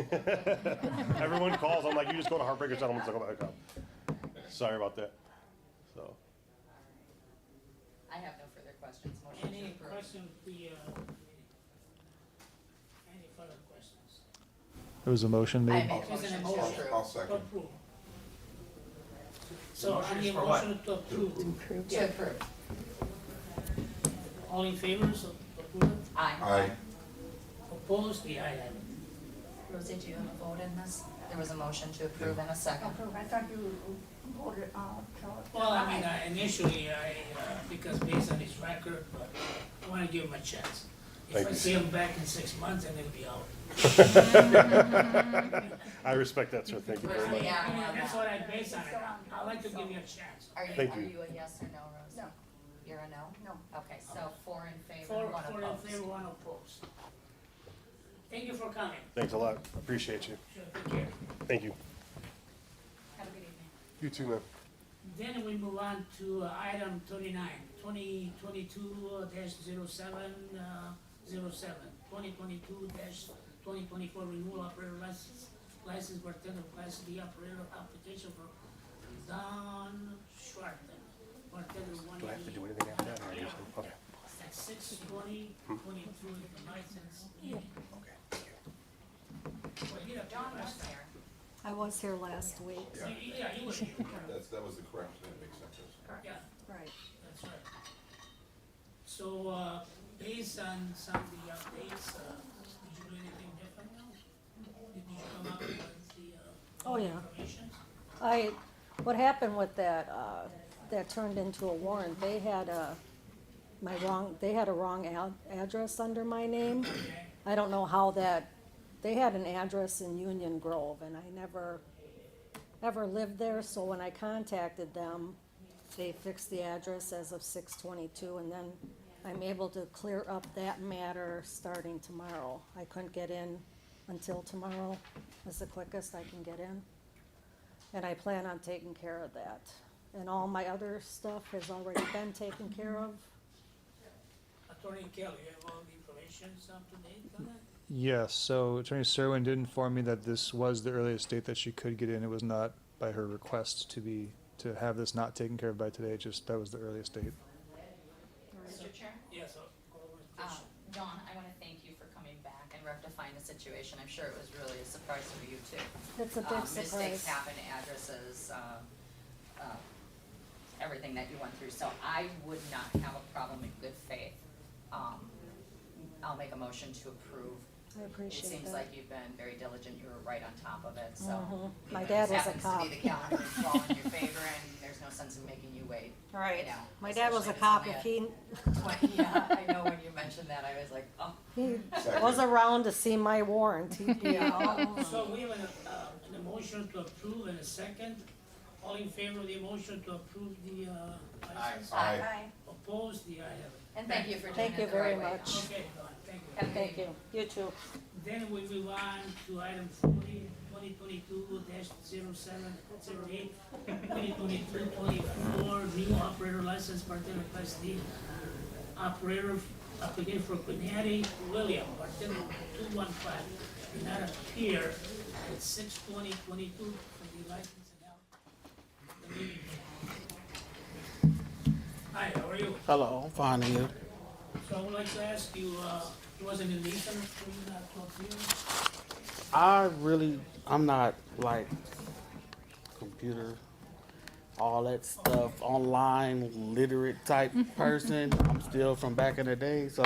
Everyone calls, I'm like, you just go to Heartbreaker Settlements, I'll go back up. Sorry about that. So, I have no further questions. Motion to Any approve. question, the, uh, any further questions? There was a motion I made. made a motion to Motion. approve. I'll second. Approve. So I Motion is need a for what? motion to approve. To approve. All in favor, so approve. Aye. Aye. Opposed, the ayes have it. Rosie, do you have a vote in this? There was a motion to approve and a second. Approve, I thought you voted, uh, to. Well, I mean, I- initially, I, uh, because based on his record, but I wanna give him a chance. If Thank I you. see him back in six months, then he'll be out. I respect that, sir, thank you very I mean, much. Yeah, well, That's yeah. what I base on it. I like to give you a chance. Are you, Thank are you. you a yes or no, Rosie? No. You're a no? No. Okay, so four in favor, Four, one four in favor, opposed. one opposed. Thank you for coming. Thanks a lot, appreciate you. Sure, take care. Thank you. Have a good evening. You too, man. Then we move on to uh, item twenty-nine, twenty twenty-two dash zero seven, uh, zero seven, twenty twenty-two dash twenty twenty-four renewal operator license, license bartender class D operator application for Don Schwarten. Bartender one. Do I have to do anything after that? or I just- Okay, At six twenty, twenty-two, the license. okay, thank you. Well, you know, John was last- there. I was here last week. Yeah. Yeah, you were here, That's, that was the correct, that makes sense. yeah. Right. That's right. So, uh, based on some of the updates, uh, did you do anything different now? Did you come up with the, uh? Oh, yeah. Information? I, what happened with that, uh, that turned into a warrant, they had a, my wrong, they had a wrong ad- address under my name. Okay, I don't know how that, they had an address in Union Grove, and I never, ever lived there, so when I contacted them, they fixed the address as of six twenty-two, and then I'm able to clear up that matter starting tomorrow. I couldn't get in until tomorrow, is the quickest I can get in. And I plan on taking care of that. And all my other stuff has already been taken care of. Attorney Kelly, you have all the information up to date on that? Yes, so Attorney Serwin did inform me that this was the earliest date that she could get in. It was not by her request to be, to have this not taken care of by today, just that was the earliest date. Mr. Chair? Yes, of course, Um, Dawn, I want to thank you for coming back and rectifying the situation. I'm sure it was really a surprise for you too. It's a Um, big Mistakes surprise. happen, addresses, um, uh, everything that you went through. So I would not have a problem in good faith. Um, I'll make a motion to approve. I appreciate It seems that. like you've been very diligent. You were right on top of it, so. Mhm. My you know, dad this was a Happens to be cop. the calendar is all in your favor and there's no sense in making you wait. Right. Yeah, My dad was a especially cop, when if it's he, Yeah, I know when you mentioned that, I was like, oh. he Second. was around to see my warrant, he'd be all Uh, So we have an, uh, an motion to approve and a second. All in favor of the motion to approve the, uh, license? Aye. Opposed, the ayes have it. And thank you for doing Thank you it the right very way. much. Okay, Dawn, thank you. Have a Thank you. You too. Then we move on to item forty, twenty twenty-two dash zero seven, zero eight, twenty twenty-two, twenty-four, new operator license, bartender class D. Operator applicant for Quinetti William, bartender two one five, did not appear at six twenty twenty-two for the license and out. the meeting. Hi, how are you? Hello, fine and you? So I would like to ask you, uh, it was an illusion for you not to appear? I really, I'm not like computer, all that stuff, online literate type person. I'm still from back in the day, so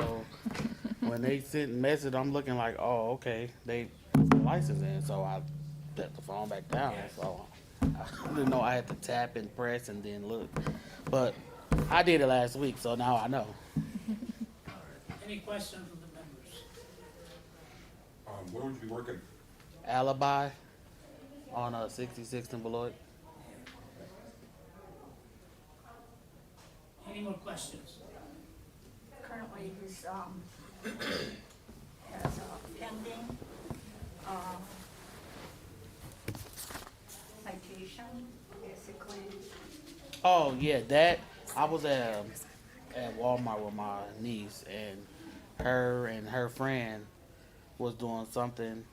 when they sent message, I'm looking like, oh, okay, they put the license in, so I put the phone back down. So I didn't know I had to tap and press and then look, but I did it last week, so now I know. Any questions from the members? Um, where would you be working? Alibi on uh, 66th and Beloit. Any more questions? Currently, he's, um, has a pending, um, citation, basically. Oh yeah, that I was at um, at Walmart with my niece and her and her friend was doing something